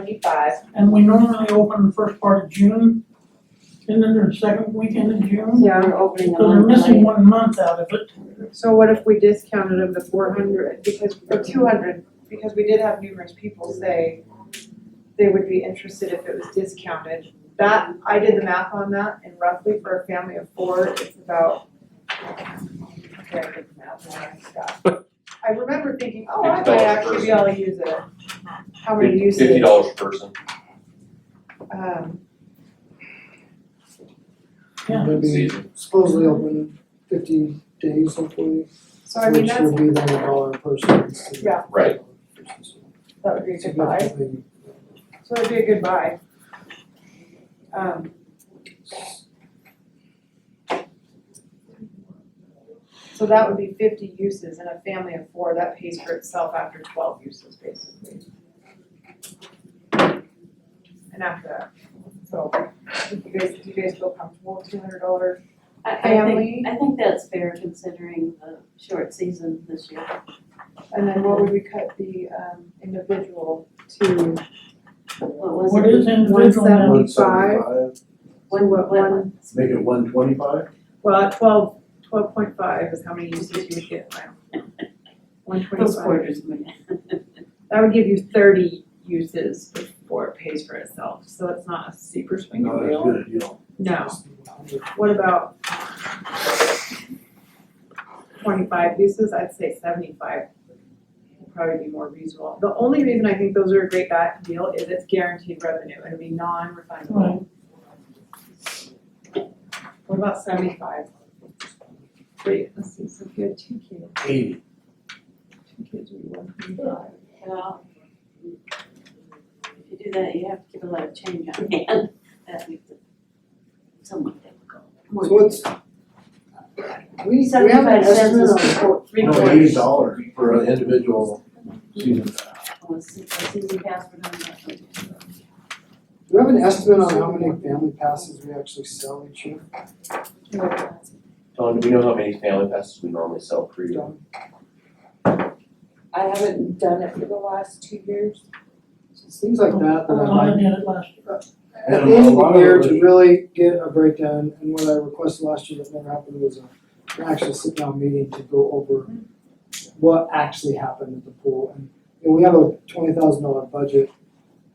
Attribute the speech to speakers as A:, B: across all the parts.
A: seventy-five.
B: And we normally open the first part of June, and then the second weekend in June.
C: Yeah, we're opening
B: So they're missing one month out of it.
C: So what if we discounted them to four hundred,
A: because, or two hundred, because we did have numerous people say they would be interested if it was discounted. That, I did the math on that, and roughly for a family of four, it's about, okay, I did the math, and I forgot. I remember thinking, oh, I might actually be able to use it. How many uses?
D: Fifty dollars per person.
A: Um,
B: Yeah.
E: They'll be
D: Season.
E: supposedly open fifty days hopefully,
A: so I mean,
E: which
A: that's,
E: will be then a dollar per person instead of.
A: Yeah.
D: Right.
A: that would be a good buy,
E: Significantly.
A: so it'd be a good buy. Um, So that would be fifty uses and a family of four, that pays for itself after twelve uses basically. And after that, so if you guys, do you guys feel comfortable with two hundred dollar
C: I, I
A: family?
C: think, I think that's fair considering the short season this year.
A: And then what would we cut the um individual to?
C: What was
B: What
C: it?
B: is individual now?
A: One seventy-five.
C: One,
A: what,
C: one,
F: Make it one twenty-five?
A: Well, at twelve, twelve point five is how many uses you would get, wow. One
C: those
A: twenty-five,
C: quarters.
A: that would give you thirty uses before it pays for itself, so it's not a super swing
F: No,
A: and
F: that's
A: deal.
F: good, you know.
A: No, what about twenty-five uses, I'd say seventy-five would probably be more reasonable. The only reason I think those are a great gu- deal is it's guaranteed revenue, it'd be non-refundable. What about seventy-five? Wait, let's see, so if you had two kids.
F: Eighty.
A: Two kids would be one twenty-five.
C: Well, If you do that, you have to give a lot of change on hand, that makes it somewhat difficult. More
E: So what's? We, we have an
C: Seventy-five cents
E: estimate
C: is
E: on,
C: four, three
F: No,
C: quarters.
F: eighty dollars for an individual season.
C: Oh, it's- it's easy pass, but I'm not sure.
E: do we have an estimate on how many family passes we actually sell each year?
D: Don, do we know how many family passes we normally sell per year?
E: Done.
G: I haven't done it for the last two years.
E: Things like that that I'd
B: I
E: like,
B: did it last year.
E: at
F: And
E: the
F: a
E: end of
F: lot
E: the
F: of
E: year
F: it
E: to
F: was-
E: really get a breakdown, and what I requested last year that never happened was a, an actual sit-down meeting to go over what actually happened at the pool, and, you know, we have a twenty thousand dollar budget,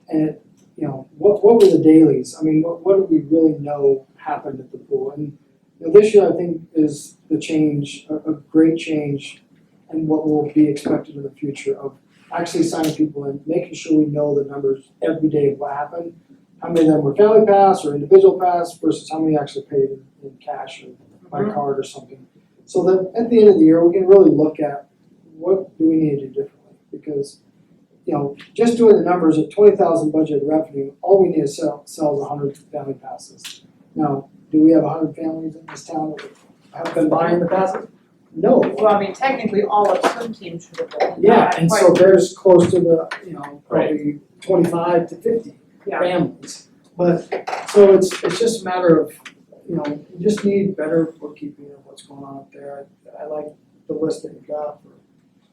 E: and, you know, what, what were the dailies, I mean, what, what do we really know happened at the pool, and, you know, this year, I think, is the change, a, a great change, and what will be expected in the future of actually signing people in, making sure we know the numbers every day of what happened, how many of them were family pass or individual pass versus how many actually paid in, in cash or by card or something. So that at the end of the year, we can really look at what do we need to do differently? Because, you know, just doing the numbers at twenty thousand budget revenue, all we need to sell, sell is hundred family passes. Now, do we have hundred families in this town that have been buying the passes? No.
A: Well, I mean, technically, all of swim teams should have been.
E: Yeah, and so there's close to the, you know,
D: Right.
E: probably twenty-five to fifty
A: Yeah.
E: families. But, so it's, it's just a matter of, you know, you just need better bookkeeping of what's going on up there. I, I like the list that you got for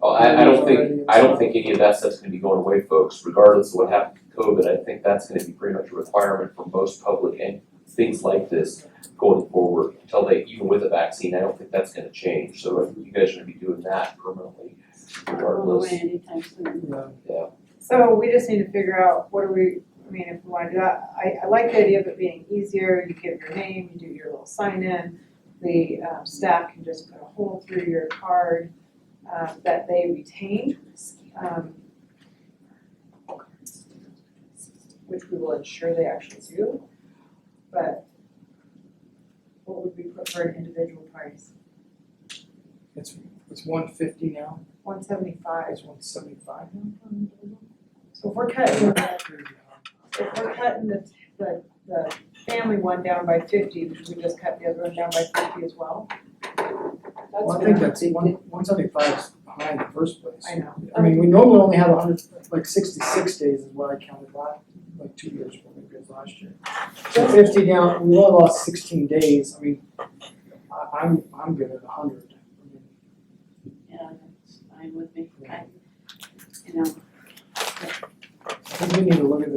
D: Oh, I, I don't think, I don't think any of that stuff's gonna be going away, folks, regardless of what happened to COVID, I think that's gonna be pretty much a requirement for most public and things like this going forward, until they, even with a vaccine, I don't think that's gonna change, so I think you guys are gonna be doing that permanently
C: Not going
D: regardless.
C: away anytime soon.
E: the
A: So we just need to figure out what do we, I mean, if we wanna do that, I, I like the idea of it being easier, you give your name, you do your little sign in. The um, staff can just put a hole through your card, um, that they retained, um. Which we will ensure they actually do, but what would we put for an individual price?
E: It's, it's one fifty now,
A: One seventy-five,
E: it's one seventy-five
A: so if we're cutting
E: now?
A: if we're cutting the, the, the family one down by fifty, should we just cut the other one down by fifty as well?
E: Well, I
G: been
E: think that's, one, one seventy-five is behind the first place.
A: I know.
E: I mean, we normally only have hundred, like sixty-six days is what I counted last, like two years, ago, maybe it was last year. So fifty down, we only lost sixteen days, I mean, I, I'm, I'm good at hundred.
C: Yeah, that's fine with me, I, you know,
E: I think we need to look at